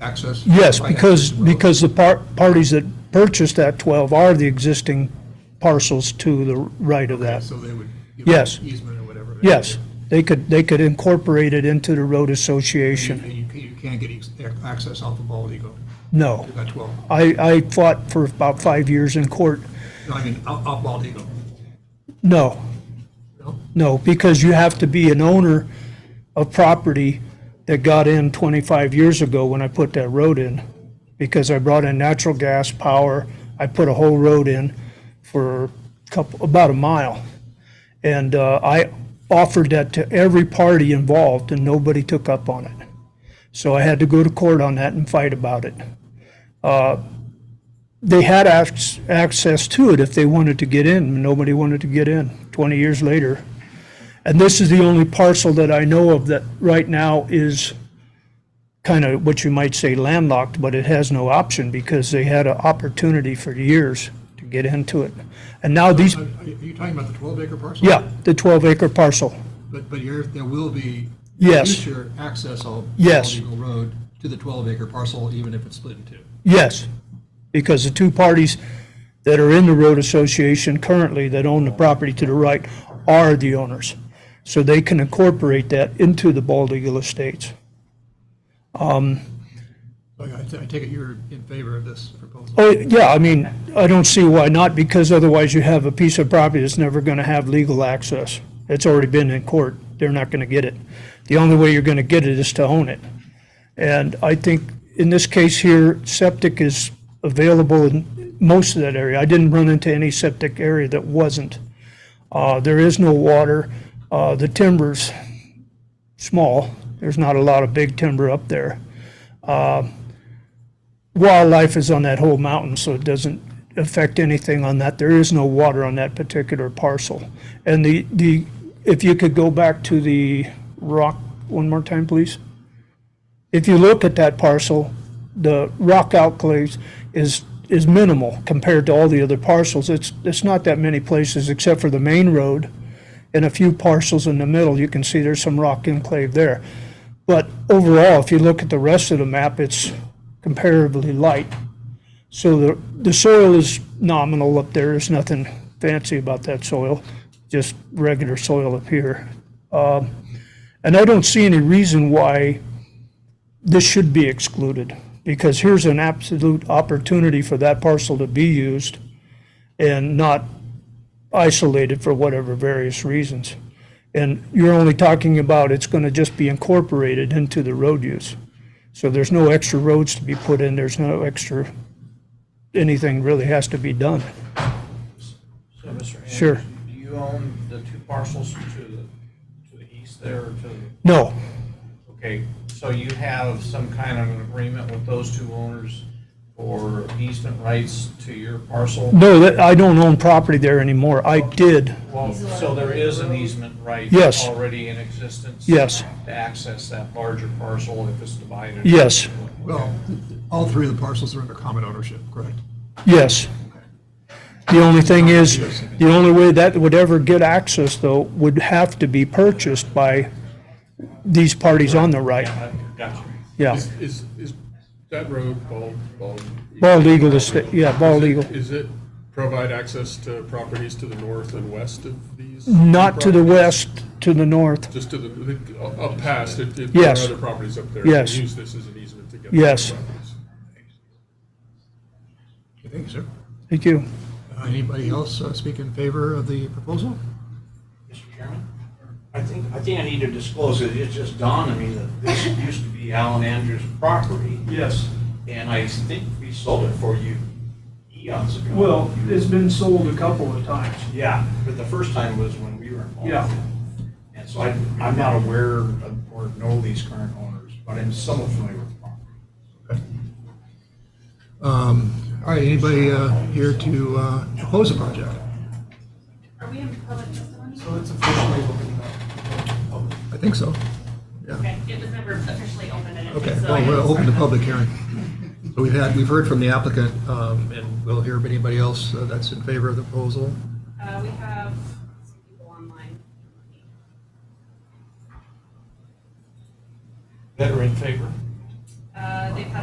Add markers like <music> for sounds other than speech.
access? Yes, by access because, road? because the par- parties that purchased that 12 are the existing parcels to the right of that. So they would. give Yes. Easement or whatever. Yes, they could, they could incorporate it into the road And association. you, you can't get ex- access off of Bald Eagle, No. you got 12, I, I fought for about five years in court. no, I mean, off off Bald Eagle, No, no? no, because you have to be an owner of property that got in 25 years ago when I put that road in. Because I brought in natural gas power, I put a whole road in for a couple, about a mile. And uh, I offered that to every party involved and nobody took up on it. So I had to go to court on that and fight about it. Uh, They had ac- access to it if they wanted to get in, and nobody wanted to get in 20 years later. And this is the only parcel that I know of that right now is kind of what you might say landlocked, but it has no option because they had an opportunity for years to get into it. And now these, Are are you talking about the 12 acre parcel? yeah, the 12 acre parcel. But, but you're, there will be. Yes. Future access off. Yes. Bald Eagle Road to the 12 acre parcel, even if it's split in two. Yes, because the two parties that are in the road association currently that own the property to the right are the owners. So they can incorporate that into the Bald Eagle Estates. Okay, I ta- I take it you're in favor of this proposal? Oh, yeah, I mean, I don't see why not, because otherwise you have a piece of property that's never going to have legal access. It's already been in court. They're not going to get it. The only way you're going to get it is to own it. And I think in this case here, septic is available in most of that area. I didn't run into any septic area that wasn't. Uh, There is no water. Uh, The timber's small. There's not a lot of big timber up there wildlife is on that whole mountain, so it doesn't affect anything on that. There is no water on that particular parcel. And the, the, if you could go back to the rock one more time, please? If you look at that parcel, the rock outclays is, is minimal compared to all the other parcels. It's, it's not that many places except for the main road and a few parcels in the middle. You can see there's some rock enclave there. But overall, if you look at the rest of the map, it's comparatively light. So the, the soil is nominal up there, there's nothing fancy about that soil, just regular soil up here. Um, And I don't see any reason why this should be excluded, because here's an absolute opportunity for that parcel to be used and not isolated for whatever various reasons. And you're only talking about it's gonna just be incorporated into the road use. So there's no extra roads to be put in, there's no extra, anything really has to be done. So, Mr. Anderson, Sure. do you own the two parcels to the, to the east there, or to the, No, okay, so you have some kind of an agreement with those two owners for easement rights to your parcel? no, that- I don't own property there anymore. I did, Well, so there is an easement right? Yes. Already in existence? Yes. To access that larger parcel if it's divided? Yes. Well, all three of the parcels are under common ownership, correct? yes. The only thing is, the only way that would ever get access though would have to be purchased by these parties on the right, Yeah, I- Got you. yeah. Is, is, is that road Bald, Bald? Bald Eagle Estate, yeah, Bald Eagle. Is it provide access to properties to the north and west of these? Not to the properties? west, to the north, Just to the- the, up past, it, it- there are Yes. other properties up there. Yes. You Use this as an easement to get. to Yes. their properties. Thank you, sir. thank you. Uh, Anybody else uh, speak in favor of the proposal? Mr. Chairman? I think, I think I need to disclose it, it just dawned on me that <laughs> this used to be Alan Andrews' property, Yes. and I think we sold it for you eons ago. Well, it's been sold a couple of times. Yeah, but the first time was when we were involved. Yeah. And so I, I'm not aware of, or know these current owners, but I'm somewhat familiar with the property. Um, All right, anybody uh, here to uh, oppose the project? Are we in public testimony? I think so. Yeah, Okay, it was never officially open and okay, anything, so. well, I- we'll open the public hearing. So we've had, we've heard from the applicant, um, and we'll hear if anybody else uh, that's in favor of the proposal. Uh, we have some people online. That are in favor? Uh, they've had